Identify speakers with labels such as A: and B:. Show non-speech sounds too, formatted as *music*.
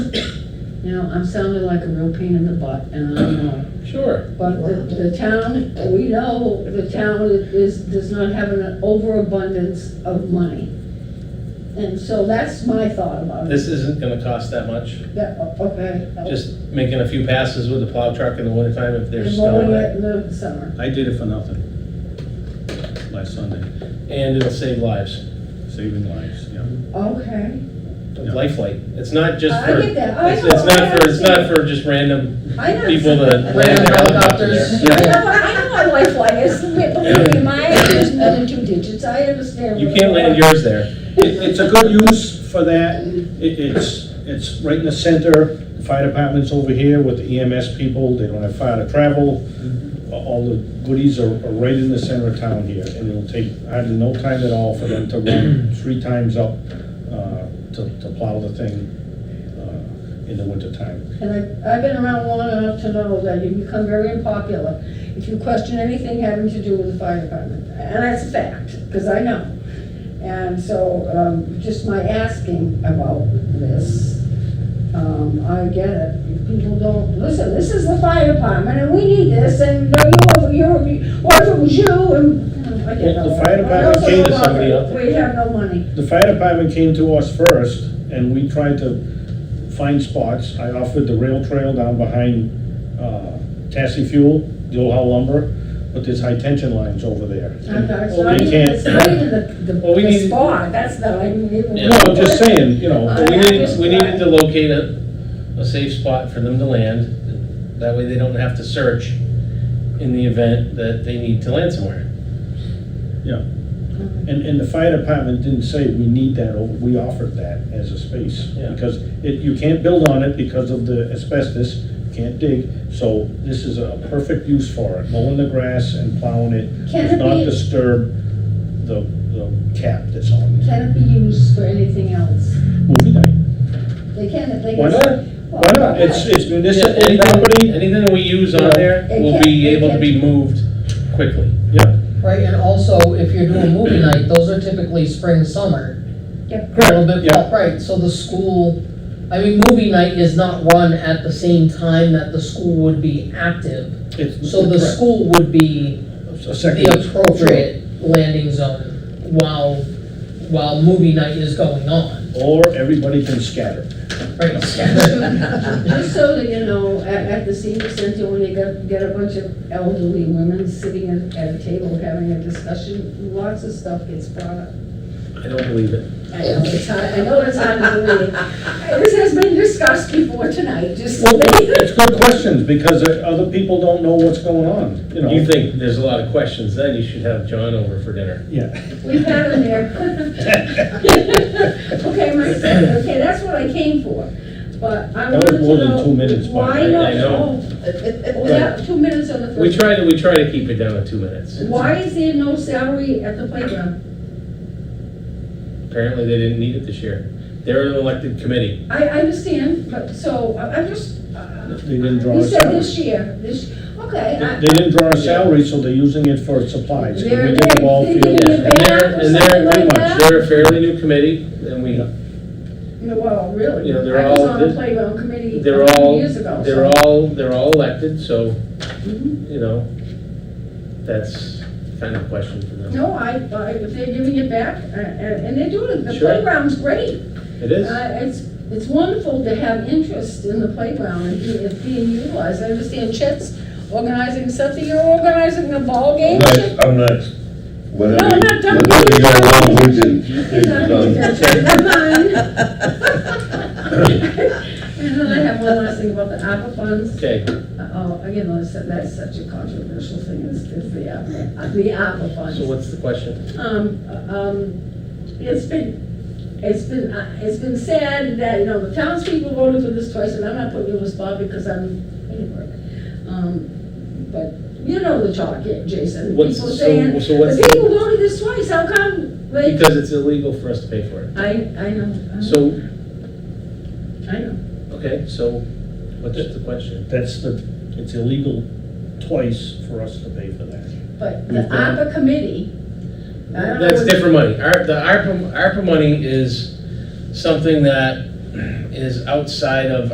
A: Now, I'm sounding like a real pain in the butt, and I know,
B: Sure.
A: but the, the town, we know the town is, does not have an overabundance of money. And so that's my thought about it.
B: This isn't gonna cost that much,
A: That- okay. that was-
B: just making a few passes with the plow truck in the wintertime if there's
A: And
B: snow
A: mowing
B: on
A: it
B: it.
A: in the summer.
C: I did it for nothing last Sunday,
B: And it'll save lives,
C: saving lives, yeah.
A: Okay.
C: Yeah.
B: lifelike. It's not just
A: I
B: for,
A: get that. I
B: it's
A: know,
B: it's not
A: I
B: for, it's not
A: understand.
B: for just random
A: I know.
B: people to
A: I know.
B: land their helicopter
C: Helicopters.
B: there.
A: I know, I know what lifeline is, believe me, mine is just more than two digits, I understand.
B: You
A: what
B: can't
A: they
B: land
A: are.
B: yours there.
C: It, it's a good use for that, it, it's, it's right in the center, The fire department's over here with the EMS people, they don't have fire to travel. All the goodies are, are right in the center of town here, and it'll take hardly no time at all for them to run three times up, uh, to, to plow the thing, uh, in the wintertime.
A: And I, I've been around long enough to know that you become very unpopular if you question anything having to do with the fire department. And that's a fact, because I know. And so, um, just my asking about this, um, I get it. People don't, listen, this is the fire department and we need this and you're, you're, what if it was you and, you know, I get
C: Well, the
A: that.
C: fire department
A: Also,
C: came to
B: somebody up.
A: We have no money.
C: The fire department came to us first, and we tried to find spots. I offered the rail trail down behind uh, Tassie Fuel, the old Howell lumber, but there's high tension lines over there.
A: I'm not, it's
C: Well,
A: not
C: we
A: even,
C: can't-
A: it's not even the, the,
B: Well, we
A: the
B: need-
A: spot, that's not, I didn't even.
B: Yeah.
C: No, I'm just saying, you know,
B: But we needed, we needed to locate a, a safe spot for them to land. That way they don't have to search in the event that they need to land somewhere.
C: yeah. And, and the fire department didn't say we need that, or we offered that as a space.
B: Yeah.
C: Because it, you can't build on it because of the asbestos, can't dig, so this is a perfect use for it. Mowing the grass and plowing it
A: Can
C: does
A: it
C: not
A: be-
C: disturb the, the cap that's on it.
A: Can it be used for anything else?
C: Movie night,
A: They can, they can.
C: why not? Why not? It's, it's
B: Yeah,
C: municipal
B: Anything,
C: property,
B: anything that we use on there will be able to be moved quickly.
C: yeah.
D: Right, and also, if you're doing movie night, those are typically spring, summer.
C: *laughs*
A: Yep.
D: A little bit,
C: yeah.
D: right, so the school, I mean, movie night is not run at the same time that the school would be active.
C: It's-
D: So the
C: correct.
D: school would be
C: A
D: the
C: second,
D: appropriate landing zone while, while movie night is going on,
C: or everybody can scatter.
D: right?
C: *laughs*
A: Just so that you know, at, at the senior center, when you get, get a bunch of elderly women sitting at, at a table having a discussion, lots of stuff gets brought up.
B: I don't believe it.
A: I know it's hard, I know it's hard to believe. This has been discussed before tonight, just.
C: Well, it's good questions, because uh, other people don't know what's going on, you know.
B: You think there's a lot of questions, then you should have John over for dinner.
C: Yeah.
A: We've had them there. *laughs* Okay, my second, okay, that's what I came for, but I
C: That
A: wanted to
C: was
A: know.
C: more than two minutes, by the
A: Why
C: way.
A: not?
B: I *laughs* know.
A: Oh, Yeah, two minutes on the first.
B: We try to, we try to keep it down to two minutes.
A: Why is there no salary at the playground?
B: Apparently, they didn't need it this year. They're an elected committee.
A: I, I understand, but, so, I- I'm just, uh,
C: They didn't draw
A: you
C: a
A: said this
C: salary.
A: year, this, okay.
C: They
A: I-
C: they didn't draw a salary, so they're using it for supplies. Can we get the ball
A: They're-
C: field?
A: they're-
B: Yeah, And they're, and they're,
A: Back or something
B: pretty
A: like
B: much,
A: that?
B: they're a fairly new committee, and we,
A: No, Well, really?
B: Yeah, they're
A: I was
B: all-
A: on the playground committee a
B: they're
A: few
B: all,
A: years ago,
B: they're
A: so.
B: all, they're all elected, so,
A: Mhm.
B: you know, that's kind of a question for them.
A: No, I, I, if they're giving it back, uh, and and they're doing it, the
B: Sure.
A: playground's great.
B: It is?
A: Uh, It's, it's wonderful to have interest in the playground and be- it being utilized. I understand Chet's organizing something, you're organizing a ball game. Chet?
E: I'm not,
A: No,
E: whatever,
A: I'm not done.
E: whatever you want with
A: *laughs*
E: it,
A: He's
E: it's
A: not
E: done.
A: interested. Never mind. *laughs* And then I have one last thing about the ARPA funds.
B: Okay,
A: Oh, again, I said that's such a controversial thing, is, is the, ARPA- uh, the ARPA funds.
B: so what's the question?
A: Um, um, it's been, it's been, uh, it's been said that, you know, the townspeople voted for this twice, and I'm not putting you on the spot because I'm in work. Um, But you know the talk, yeah, Jason.
B: What's,
A: People saying,
B: so, so what's,
A: the people voted this twice, how come they?
B: because it's illegal for us to pay for it.
A: I, I know, I know,
B: So,
A: I know.
B: okay, so what's the question?
C: That's the, it's illegal twice for us to pay for that.
A: But the
B: We've done-
A: ARPA committee, I don't know.
B: That's
A: what-
B: different money. Our, the ARPA, ARPA money is something that is outside of